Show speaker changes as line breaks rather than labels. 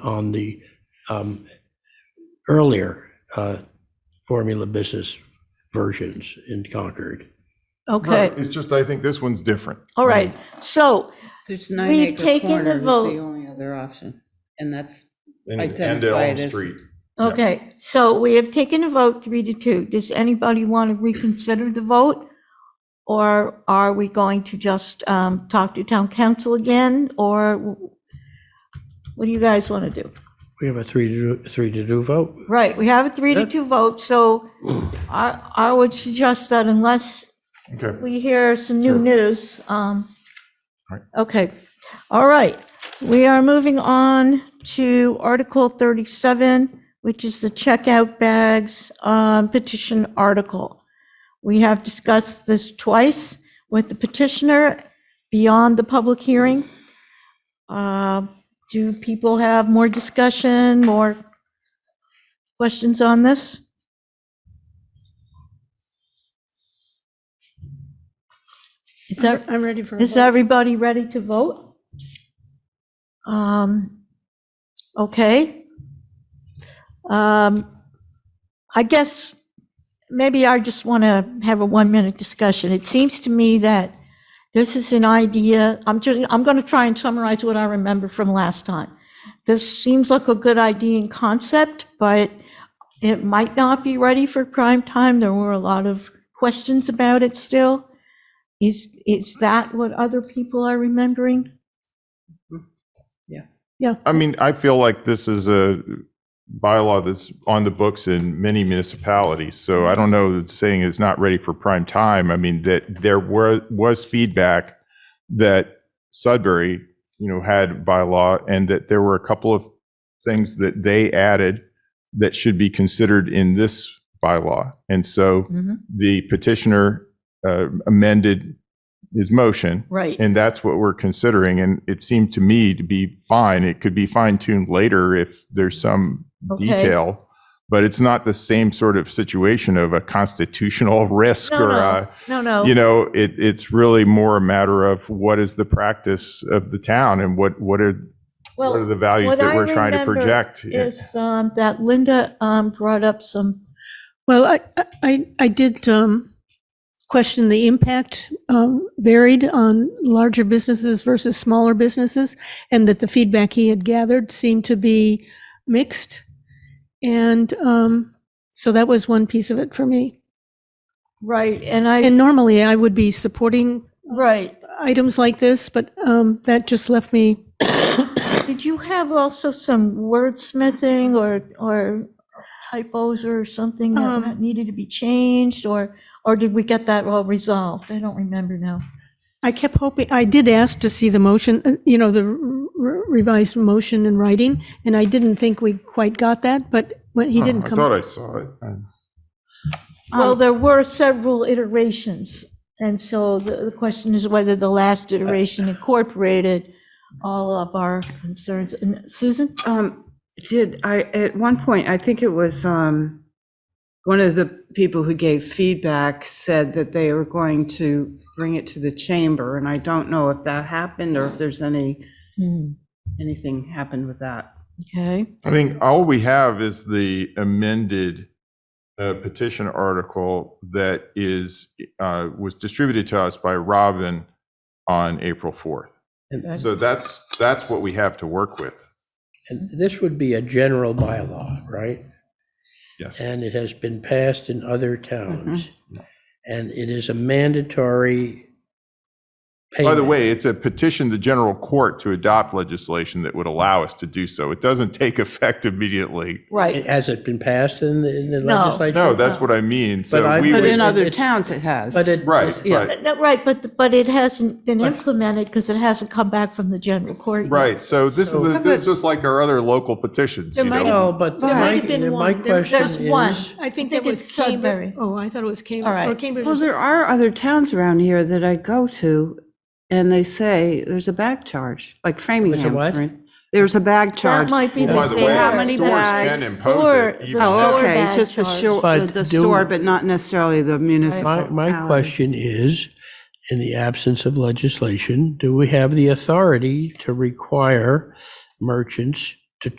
on the um, earlier uh, formula business versions in Concord.
Okay,
It's just, I think this one's different.
all right. So
There's nine
We've
acre
taken the
corner is
vote.
the only other option, and that's,
And- And
Identify
Elm
it as-
Street.
Okay, so we have taken a vote three to two. Does anybody want to reconsider the vote? Or are we going to just um, talk to town council again? Or what do you guys want to do?
We have a three to, do- three to do vote.
Right, we have a three to two vote, so I, I would suggest that unless
Okay.
we hear some new
Sure.
news, um,
Right.
okay, all right. We are moving on to Article 37, which is the checkout bags um, petition article. We have discussed this twice with the petitioner beyond the public hearing. Uh, Do people have more discussion, more questions on this? Is that,
I'm ready for a
is
vote.
everybody ready to vote? Um, okay. Um, I guess maybe I just want to have a one-minute discussion. It seems to me that this is an idea, I'm just, I'm going to try and summarize what I remember from last time. This seems like a good idea in concept, but it might not be ready for prime time. There were a lot of questions about it still. Is, is that what other people are remembering?
I mean, I feel like this is a bylaw that's on the books in many municipalities. So I don't know, that saying it's not ready for prime time. I mean, that there were, was feedback that Sudbury, you know, had bylaw and that there were a couple of things that they added that should be considered in this bylaw. And so
Mm-hmm.
the petitioner uh, amended his motion.
Right.
And that's what we're considering. And it seemed to me to be fine. It could be fine tuned later if there's some
Okay.
detail. But it's not the same sort of situation of a constitutional risk
No,
or
no,
a,
no, no.
you know, it, it's really more a matter of what is the practice of the town and what, what are,
Well,
what are the values
what
that
I
we're trying to
remember
project?
Is, um, that Linda, um, brought up some,
Well, I, I, I did um, question the impact um, varied on larger businesses versus smaller businesses, and that the feedback he had gathered seemed to be mixed. And um, so that was one piece of it for me.
right, and I,
And normally I would be supporting
right.
items like this, but um, that just left me,
Did you have also some wordsmithing or, or typos or something that
Um,
might- needed to be changed? Or, or did we get that all resolved? I don't remember now.
I kept hoping, I did ask to see the motion, uh, you know, the re- revised motion in writing, and I didn't think we quite got that, but when he didn't
I
come.
thought I saw it.
Well,
Um,
there were several iterations, and so the the question is whether the last
Uh,
iteration incorporated all of our concerns. And Susan?
um, did, I, at one point, I think it was, um, one of the people who gave feedback said that they were going to bring it to the chamber, and I don't know if that happened or if there's any, Hmm, anything happened with that.
Okay,
I think all we have is the amended uh, petition article that is, uh, was distributed to us by Robin on April 4th.
And,
So that's, that's what we have to work with.
and this would be a general bylaw, right?
Yes.
And it has been passed in other towns. And it is a mandatory
By the
payment.
way, it's a petition to general court to adopt legislation that would allow us to do so. It doesn't take effect immediately.
It-
right.
Has it been passed in the, in the
No.
legislature?
No, that's what I mean.
I-
So we
But in
But in
would,
other
other
it's-
towns, it has.
But it.
right,
Yeah.
right.
Uh, No, Right, but, but it hasn't been implemented because it hasn't come back from the general court. yet.
Right, so this is, the-
So-
this is just like our other local petitions, you
There might
know?
have-
No, but
There
my,
might have been
my
one. There-
question
there's one.
is,
I think
think
that was
it's Sudbury.
Cambridge. Oh, I thought it was
All
Cambridge,
right.
or Cambridge.
Well,
is-
there are other towns around here that I go to, and they say there's a bag charge, like Framingham.
what?
for in- There's a bag
That
charge.
might be the
Well, Oh, by the
same.
way, uh,
How many
stores
bags?
can impose it.
Store-
even
the
if-
Oh,
store
okay, it's
bag
just the
charge.
store,
But
the
do-
store, but not necessarily the
my,
municipal.
my question is, in the absence of legislation, do we have the authority to require merchants